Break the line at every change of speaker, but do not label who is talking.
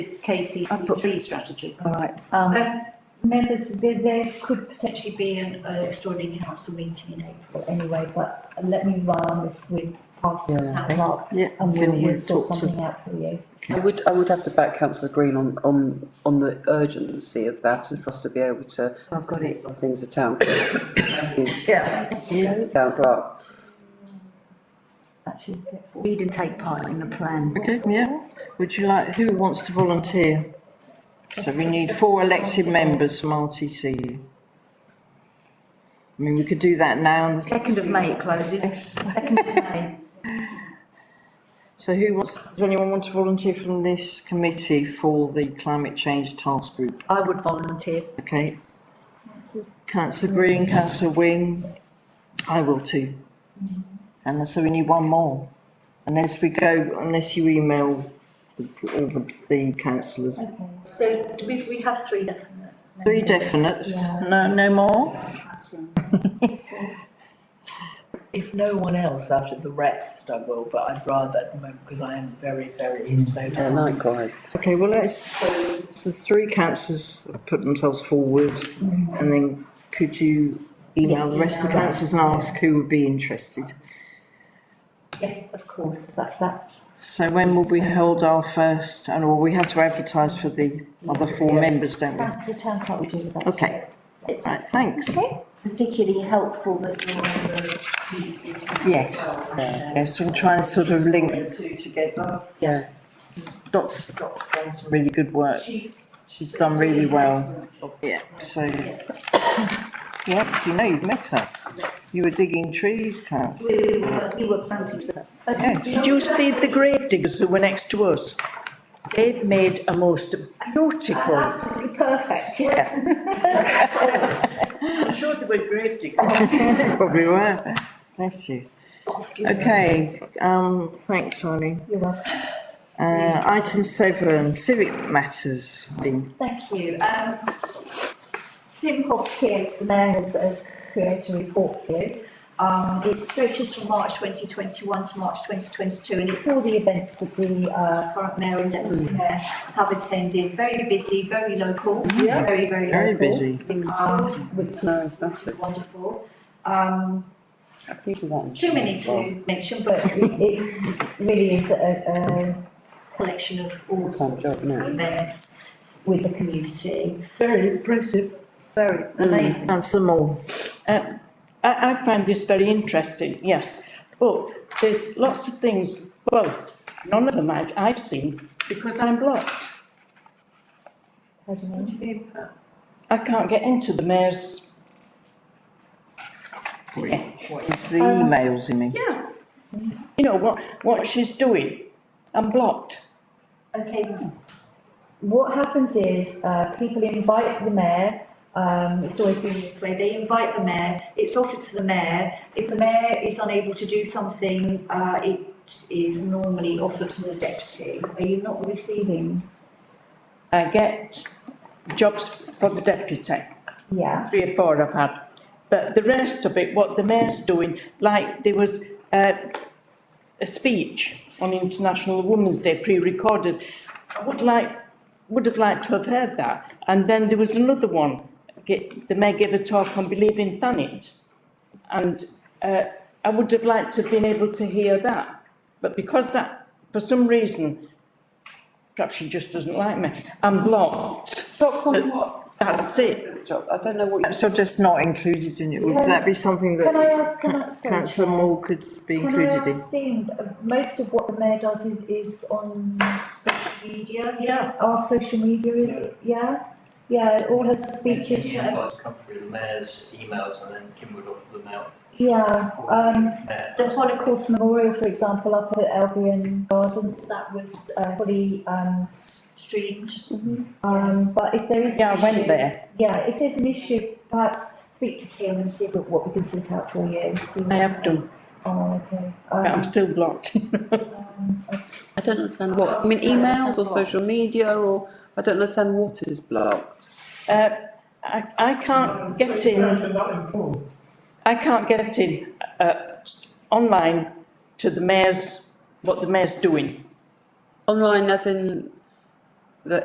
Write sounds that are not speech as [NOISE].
KCC
I've put-
tree strategy.
All right, um,
Uh, Members, there, there could potentially be an uh, extraordinary council meeting in April anyway, but let me run this with past the
Yeah.
town clerk.
Yeah,
And we'll,
can we
we'll sort
talk to-
something out for you.
I would, I would have to back councillor Green on, on, on the urgency of that and for us to be able to.
I've got it.
Some things are town.
Yeah.
Town clerk.
Actually, get forward.
Read and take part in the plan.
Okay, yeah. Would you like, who wants to volunteer? So we need four elected members from RTC. I mean, we could do that now. and-
Second of May it closes. Second of May.
So who wants, does anyone want to volunteer from this committee for the climate change task group?
I would volunteer.
Okay, councillor Green, councillor Wing, I will too. And so we need one more. Unless we go, unless you email the, all the, the councillors.
Okay.
So do we, we have three definite.
Three definites,
Yeah.
no, no more?
If no one else out of the rest, I will, but I'd rather at the moment, because I am very, very insane.
Yeah, likewise.
Okay, well, let's, so the three councillors have put themselves forward, and then could you email the rest of the councillors and ask who would be interested?
Yes, of course, that, that's,
So when will we hold our first, and well, we have to advertise for the other four members, don't we?
the town clerk will do that.
Okay,
It's
right, thanks.
particularly helpful that you're on the BBC.
Yes, uh, yes, we'll try and sort of link the two together.
Yeah.
Dr Scott's done some really good work,
She's
she's done really well, yeah, so,
Yes,
yes, you know, you've met her,
yes.
you were digging trees, councillor.
We were, we were planting the.
Yes.
Did you see the grave diggers who were next to us? They've made a most beautiful,
Absolutely perfect, yes.
[LAUGHS]
[LAUGHS]
I'm sure they were grave diggers.
Probably were. Bless you. Okay, um, thanks, Eileen.
You're welcome.
Uh, item seven, civic matters. Dean.
Thank you. Um, Kim Hobbs here, the mayor has, has created a report for you.
Um, it stretches from March twenty twenty-one to March twenty twenty-two and it's
It's all the events that the,
our
uh,
current mayor and
Mm.
deputy mayor have attended. Very busy, very local,
Yeah.
very, very local.
Very busy.
Um, which
No, it's
is, which
massive.
is wonderful. Um,
People want-
too many to mention, but
but it, it really is a, a
collection of all sorts of
job, no.
events with the community.
Very impressive.
Very amazing.
And some more.
I, I find this very interesting, yes. But there's lots of things, well, none of them I've, I've seen because I'm blocked.
How do you mean?
I can't get into the mayor's, yeah,
It's the
Um,
emails, you mean?
yeah. You know, what, what she's doing, I'm blocked.
Okay, what happens is, uh, people invite the mayor, um, it's always been
this way, they invite the mayor, it's offered to the mayor. If the mayor is unable to do something, uh, it is normally offered to the deputy. Are you not receiving?
I get jobs for the deputy,
yeah,
three or four I've had. But the rest of it, what the mayor's doing, like there was uh, a speech on International Women's Day pre-recorded. I would like, would have liked to have heard that. And then there was another one, ge- the mayor gave a talk on Believe in Planet. And uh, I would have liked to have been able to hear that. But because that, for some reason, perhaps she just doesn't like me, I'm blocked.
Blocked on what?
That's it.
Job, I don't know what you.
Perhaps I'm just not included in it. Would that be something
can I
that
ask, can I, sorry.
councillor Moore could be
Can I
included in?
ask, Dean, uh, most of what the mayor does is, is on
Social media, yeah.
our social media, is it? yeah? Yeah, all her speeches,
The
uh,
invites come through the mayor's emails and then Kim would offer them out.
yeah, um,
Mayor.
the Holocaust Memorial, for example, up at Albion Gardens, that was, uh, fully, um,
Streamed.
um, but if there is.
Mm-hmm. Yeah, I went
issue-
there.
Yeah, if there's an issue, perhaps speak to Kim and see what, what we can sort out for you. see
I
what's-
have done,
Oh, okay.
but I'm
Um,
still blocked.
um,
I don't understand what, I mean, emails or social media or, I don't understand what is blocked.
Uh, I, I can't get in. I can't get in, uh, online to the mayor's, what the mayor's doing.
Online as in